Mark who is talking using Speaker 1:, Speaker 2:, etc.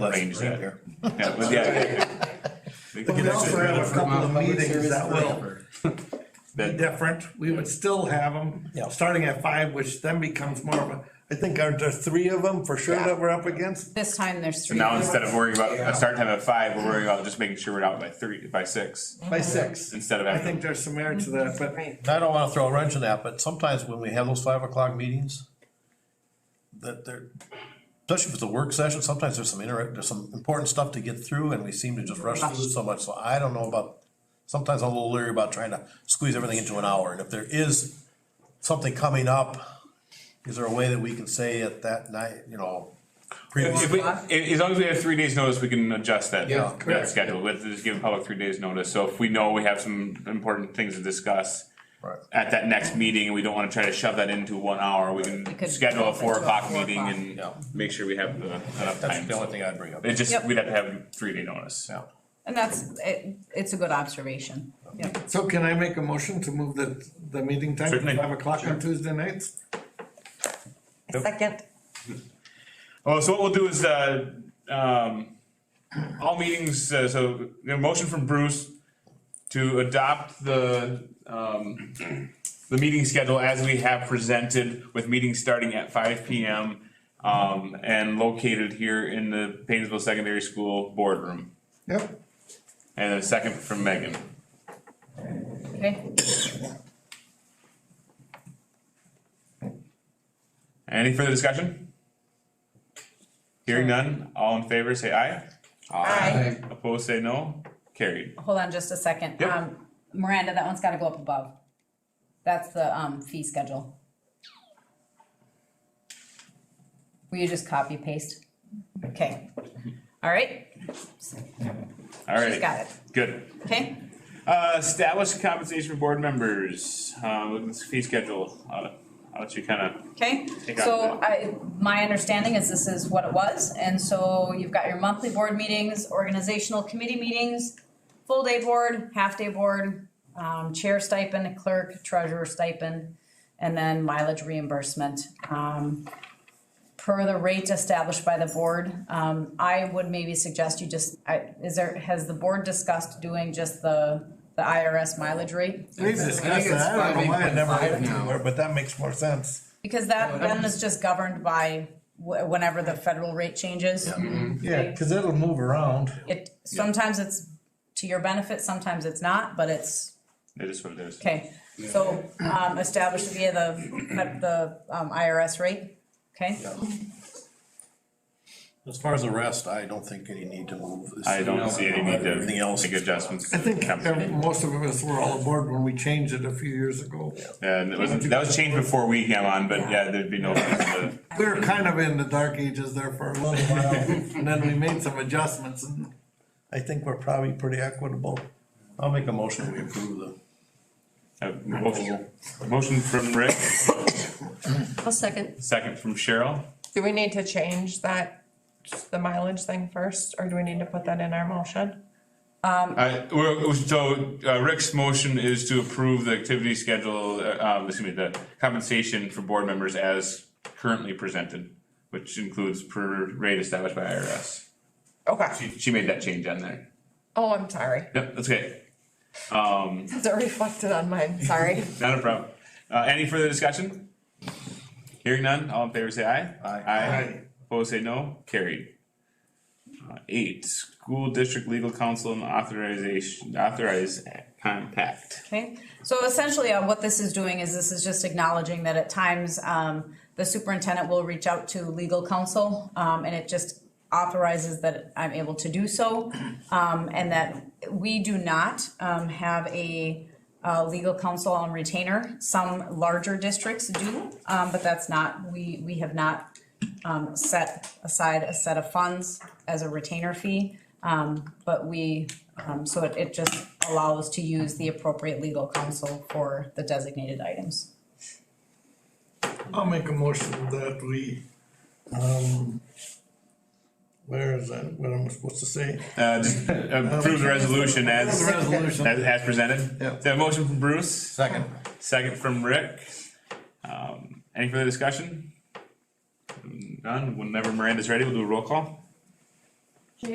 Speaker 1: range that.
Speaker 2: right there.
Speaker 1: Yeah, but yeah. They
Speaker 2: But
Speaker 1: can
Speaker 2: we also uh,
Speaker 1: actually-
Speaker 2: have a couple of meetings that will be
Speaker 1: That,
Speaker 2: different. We would still have them,
Speaker 3: Yeah.
Speaker 2: starting at five, which then becomes more of a, I think, aren't there three of them for sure
Speaker 4: Yeah.
Speaker 2: that we're up against?
Speaker 4: This time there's
Speaker 1: so
Speaker 4: three.
Speaker 1: now instead of worrying about a start time at five, we're worrying about just making sure we're out by three, by six,
Speaker 2: By
Speaker 3: Mm-hmm.
Speaker 2: six.
Speaker 1: instead of
Speaker 2: I
Speaker 1: having.
Speaker 2: think there's some merit to that, but
Speaker 4: Right.
Speaker 3: I don't wanna throw a wrench in that, but sometimes when we have those five o'clock meetings, that they're, especially if it's a work session, sometimes there's some inter, there's some important stuff to get through and we seem to just rush through so much, so I don't know about, sometimes I'm a little leery about trying to squeeze everything into an hour, and if there is something coming up, is there a way that we can say at that night, you know? previous-
Speaker 1: If we, a- as long as we have three days' notice, we can adjust that,
Speaker 3: Yeah.
Speaker 1: that schedule, let's just give public three days' notice, so if we know we have some important things to discuss.
Speaker 3: Right.
Speaker 1: At that next meeting, and we don't wanna try to shove that into one hour, we can
Speaker 4: could
Speaker 1: schedule a
Speaker 4: bump it
Speaker 1: four
Speaker 4: to a
Speaker 1: o'clock
Speaker 4: four
Speaker 1: meeting
Speaker 4: o'clock.
Speaker 1: and
Speaker 3: Yeah.
Speaker 1: make sure we have the- enough
Speaker 3: That's
Speaker 1: time.
Speaker 3: the only thing I'd bring up.
Speaker 1: It just,
Speaker 4: Yep.
Speaker 1: we'd have to have three day notice.
Speaker 3: Yeah.
Speaker 4: And that's, it, it's a good observation. Yep.
Speaker 2: so can I make a motion to move the, the meeting time to
Speaker 1: Certainly.
Speaker 2: five o'clock on Tuesday nights?
Speaker 5: Second,
Speaker 1: Well, Oh, so what we'll do is, uh, um, all meetings, uh, so, you know, motion from Bruce to adopt the, um, the meeting schedule as we have presented with meetings starting at five P M. Um, and located here in the Painesville Secondary School boardroom.
Speaker 2: Yep.
Speaker 1: And a second from Megan.
Speaker 4: Okay.
Speaker 1: Any further discussion? Hearing none, all in favor, say aye.
Speaker 5: Aye.
Speaker 1: Opposed, say no. Carried.
Speaker 4: Hold on just a second.
Speaker 1: Yep.
Speaker 4: Um, Miranda, that one's gotta go up above. That's the, um, fee schedule. Will you just copy paste? Okay. All right,
Speaker 1: All right.
Speaker 4: she's got it.
Speaker 1: Good.
Speaker 4: Okay,
Speaker 1: Uh, establish compensation for board members, uh, with this fee schedule, I'll, I'll let you kinda,
Speaker 4: okay.
Speaker 1: Take out
Speaker 4: So I, my understanding is this is what it was. And so you've got your monthly board meetings, organizational committee meetings, full day board, half day board, um, chair stipend, clerk, treasurer stipend, and then mileage reimbursement. Um, per the rate established by the board, um, I would maybe suggest you just, I, is there, has the board discussed doing just the, the IRS mileage rate?
Speaker 2: We've discussed that, I don't know why I never went anywhere, but that makes more sense.
Speaker 4: Because that then is just governed by wh- whenever the federal rate changes.
Speaker 3: Yeah, cause it'll move around.
Speaker 4: It, sometimes it's to your benefit, sometimes it's not, but it's,
Speaker 1: it is what it is.
Speaker 4: okay. So, um, established via the, the um, IRS rate, okay?
Speaker 3: As far as the rest, I don't think any need to move. this.
Speaker 1: I don't see any need
Speaker 3: Everything
Speaker 1: to
Speaker 3: else.
Speaker 1: make adjustments.
Speaker 2: I think every- most of us were all aboard when we changed it a few years ago.
Speaker 1: And it was, that was changed before we came on, but yeah, there'd be no, reason to-
Speaker 2: We were kind of in the dark ages there for a little while, and then we made some adjustments, and I think we're probably pretty equitable.
Speaker 3: I'll make a motion, we approve the.
Speaker 1: uh, motion, motion from Rick,
Speaker 5: I'll second.
Speaker 1: second from Cheryl.
Speaker 5: Do we need to change that, the mileage thing first, or do we need to put that in our motion?
Speaker 1: Uh, we're- so, uh, Rick's motion is to approve the activity schedule, uh, um, excuse me, the compensation for board members as currently presented, which includes per rate established by IRS.
Speaker 5: Okay,
Speaker 1: She, she made that change on there.
Speaker 5: oh, I'm sorry,
Speaker 1: Yep, that's okay. Um,
Speaker 5: it's reflected on mine, sorry.
Speaker 1: not a problem. Uh, any further discussion? Hearing none, all in favor say aye.
Speaker 3: Aye.
Speaker 1: Aye. Opposed say no, carried. Uh, Eight, school district legal counsel and authorization, authorized compact.
Speaker 4: Okay, so essentially, uh, what this is doing is this is just acknowledging that at times, um, the superintendent will reach out to legal counsel, um, and it just authorizes that I'm able to do so. Um, and that we do not, um, have a, uh, legal counsel on retainer. Some larger districts do, um, but that's not, we, we have not, um, set aside a set of funds as a retainer fee. Um, but we, um, so it, it just allows to use the appropriate legal counsel for the designated items.
Speaker 2: I'll make a motion that we, um, where is that, what am I supposed to say?
Speaker 1: Uh, just approve the resolution as,
Speaker 2: The
Speaker 1: as,
Speaker 2: resolution,
Speaker 1: as presented.
Speaker 2: Yeah.
Speaker 1: So a motion from Bruce,
Speaker 3: Second.
Speaker 1: second from Rick. Um, any further discussion? None, whenever Miranda's ready, we'll do a roll call.